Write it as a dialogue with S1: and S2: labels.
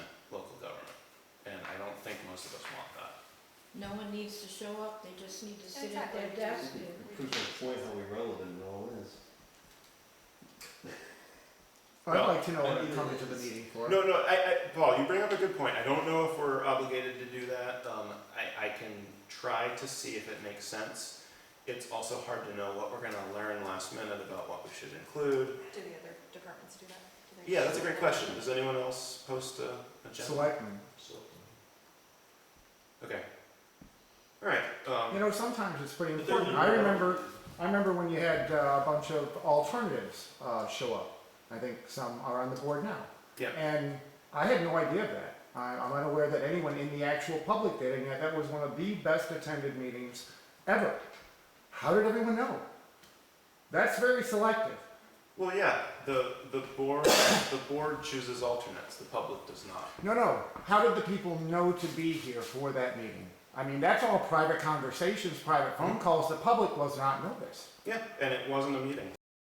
S1: No one needs to show up, they just need to sit at
S2: Exactly.
S1: their desk and
S3: Proves my point how irrelevant it all is.
S4: I'd
S5: Well,
S4: like to know what
S3: I-
S4: you're coming to the meeting for.
S5: No, no, I, I, Paul, you bring up a good point. I don't know if we're obligated to do that. Um, I, I can try to see if it makes sense. It's also hard to know what we're gonna learn last minute about what we should include.
S2: Do the other departments do that? Do they
S5: Yeah, that's a
S2: do
S5: great
S2: that?
S5: question. Does anyone else post a agenda?
S4: Selectmen.
S5: Okay. All right,
S4: You
S5: um,
S4: know, sometimes it's pretty
S3: But there's
S4: important.
S3: no-
S4: I remember, I remember when you had uh, a bunch of alternatives uh, show up. I think some are on the board now.
S5: Yeah.
S4: And I had no idea of that. I, I'm unaware that anyone in the actual public did, and yet that was one of the best attended meetings ever. How did everyone know? That's very selective.
S5: well, yeah, the, the board, the board chooses alternates, the public does not.
S4: No, no. How did the people know to be here for that meeting? I mean, that's all private conversations, private phone calls. The public was not noticed.
S5: Yeah, and it wasn't a meeting.